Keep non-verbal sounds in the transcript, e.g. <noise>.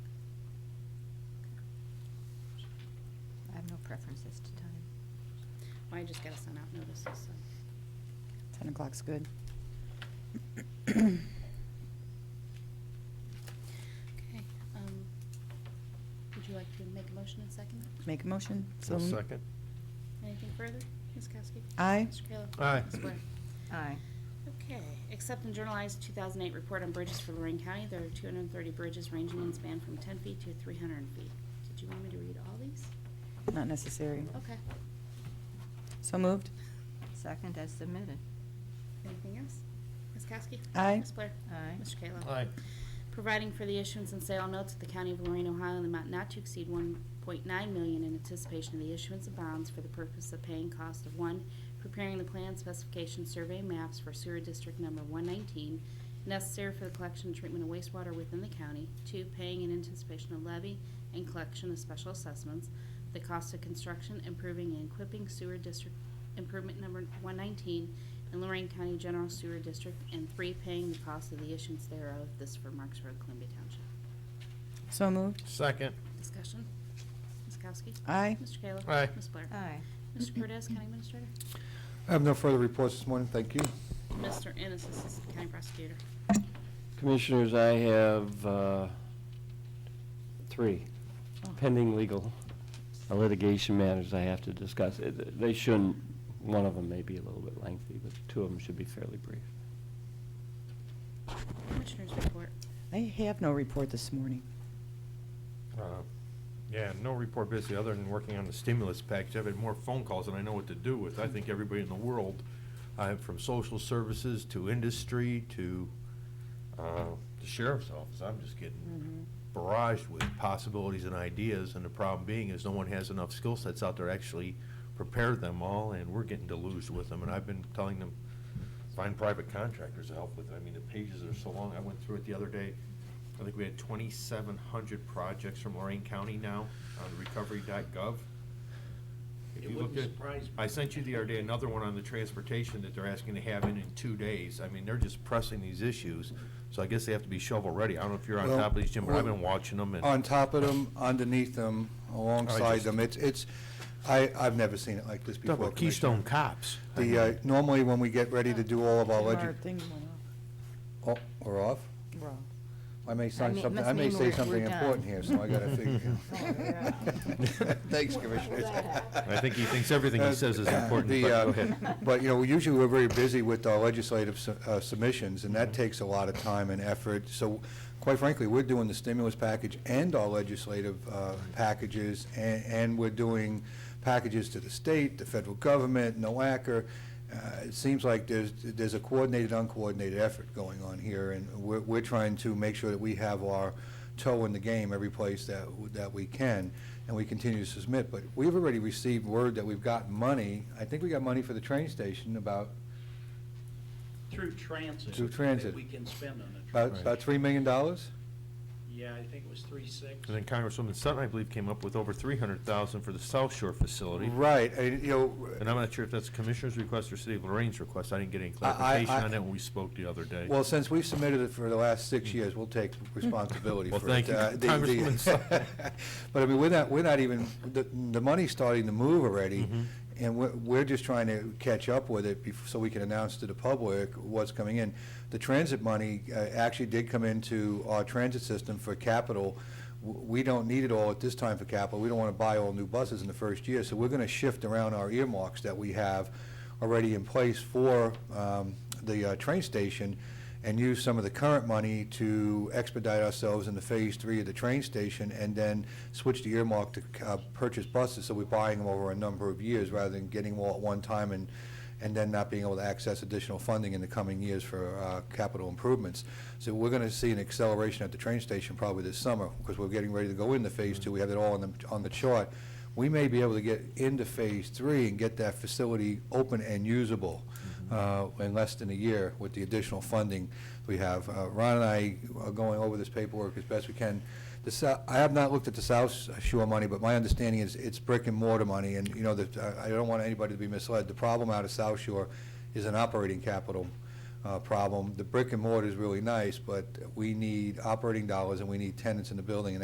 have no preferences to time. Well, I just gotta send out notices, so. 10 o'clock's good. Okay, um, would you like to make a motion and second it? Make a motion? I'll So- second. Anything further? Ms. Kowski? Aye. Mr. Kayla? Aye. Ms. Blair? Aye. Okay, accept and journalize 2008 report on bridges for Lorraine County. There are 230 bridges ranging in span from 10 feet to 300 feet. Did you want me to read all these? Not necessary. Okay. So moved? Second as submitted. Anything else? Ms. Kowski? Aye. Ms. Blair? Aye. Mr. Kayla? Aye. providing for the issuance and sale of notes of the County of Lorraine, Ohio, in the amount not to exceed 1.9 million in anticipation of the issuance of bonds for the purpose of paying cost of, one, preparing the plan specification survey maps for sewer district number 119, necessary for the collection and treatment of wastewater within the county, two, paying in anticipation of levy and collection of special assessments, the cost of construction, improving and equipping sewer district improvement number 119 in Lorraine County General Sewer District, and three, paying the cost of the issuance thereof, this for Marks Road, Columbia Township. So moved? Second. Discussion? Ms. Kowski? Aye. Mr. Kayla? Aye. Ms. Blair? Aye. Mr. Cordez, County Administrator? I have no further reports this morning, thank you. Mr. Ennis, Assistant County Prosecutor. Commissioners, I have uh, three pending legal litigation matters I have to discuss. Uh, th- They shouldn't, one of them may be a little bit lengthy, but two of them should be fairly brief. Commissioners report. I have no report this morning. Uh, Yeah, no report busy, other than working on the stimulus package. I've had more phone calls than I know what to do with. I think everybody in the world, uh, from social services to industry to uh, the sheriff's office, I'm just getting barraged with possibilities and ideas, and the problem being is no one has enough skill sets out there to actually prepare them all, and we're getting deluged with them. And I've been telling them, find private contractors to help with it. I mean, the pages are so long. I went through it the other day. I think we had twenty-seven hundred projects from Lorraine County now on recovery.gov. If It you look wouldn't at, surprise me. I sent you the other day another one on the transportation that they're asking to have in in two days. I mean, they're just pressing these issues, so I guess they have to be shovel-ready. I don't know if you're on Well, top of these, Jim, but I've well, been watching them and. On top of them, underneath them, alongside just- them, it's, it's, I, I've never seen it like this Talk before. about Keystone Commissioner. Cops. The, uh, normally when we get ready to do all of our Our legis, things went off. oh, we're off? We're off. I may sign mean- something, must I may mean say we're- something we're done. Oh, important here, so I gotta figure. <laughs> <laughs> Thanks, Commissioners. <laughs> I think he thinks everything he <coughs> says is important, but The, go uh, ahead. But, you know, usually we're very busy with our legislative su- uh, submissions, and Mm-hmm. that takes a lot of time and effort. So quite frankly, we're doing the stimulus package and our legislative uh, Mm-hmm. packages, a- and we're doing packages to the state, the federal government, NOACR. Uh, It seems like there's, there's a coordinated, uncoordinated effort going on here, and we're, we're trying to make sure that we have our toe in the game every place that, that we can, and we continue to submit. But we've already received word that we've got money, I think we got money for the train station, about, Through transit. Through transit. That we can spend on the about, transit. about three million dollars? Yeah, I think it was three six. And then Congresswoman Sutton, I believe, came up with over three hundred thousand for the South Shore facility. Right, and, you know, And I'm not sure if that's Commissioner's request or City of Lorraine's request. I didn't get any I- I- clarification I- on that when we spoke the other day. Well, since we've submitted it for the last six years, we'll take responsibility for Mm-hmm. Well, it. thank you, Uh, the- the- Congresswoman Sutton. <laughs> But I mean, we're not, we're not even, the, the money's starting to move already, Mm-hmm. and we're, we're just trying to catch up with it bef- so we can announce to the public what's coming in. The transit money uh, actually did come into our transit system for capital. W- We don't need it all at this time for capital. We don't want to buy all new buses in the first year, so we're going to shift around our earmarks that we have already in place for um, the uh, train station and use some of the current money to expedite ourselves into Phase Three of the train station, and then switch the earmark to uh, purchase buses, so we're buying them over a number of years, rather than getting them all at one time and, and then not being able to access additional funding in the coming years for uh, capital improvements. So we're going to see an acceleration at the train station probably this summer, because we're getting ready to go into Phase Two, we have it all on the, on the chart. We may be able to get into Phase Three and get that facility open and usable uh, in less than a year with the additional funding we have. Uh, Ron and I are going over this paperwork as best we can. The Sou- I have not looked at the South Shore money, but my understanding is it's brick and mortar money, and, you know, that, I I don't want anybody to be misled. The problem out of South Shore is an operating capital uh, problem. The brick and mortar is really nice, but we need operating dollars, and we need tenants in the building, and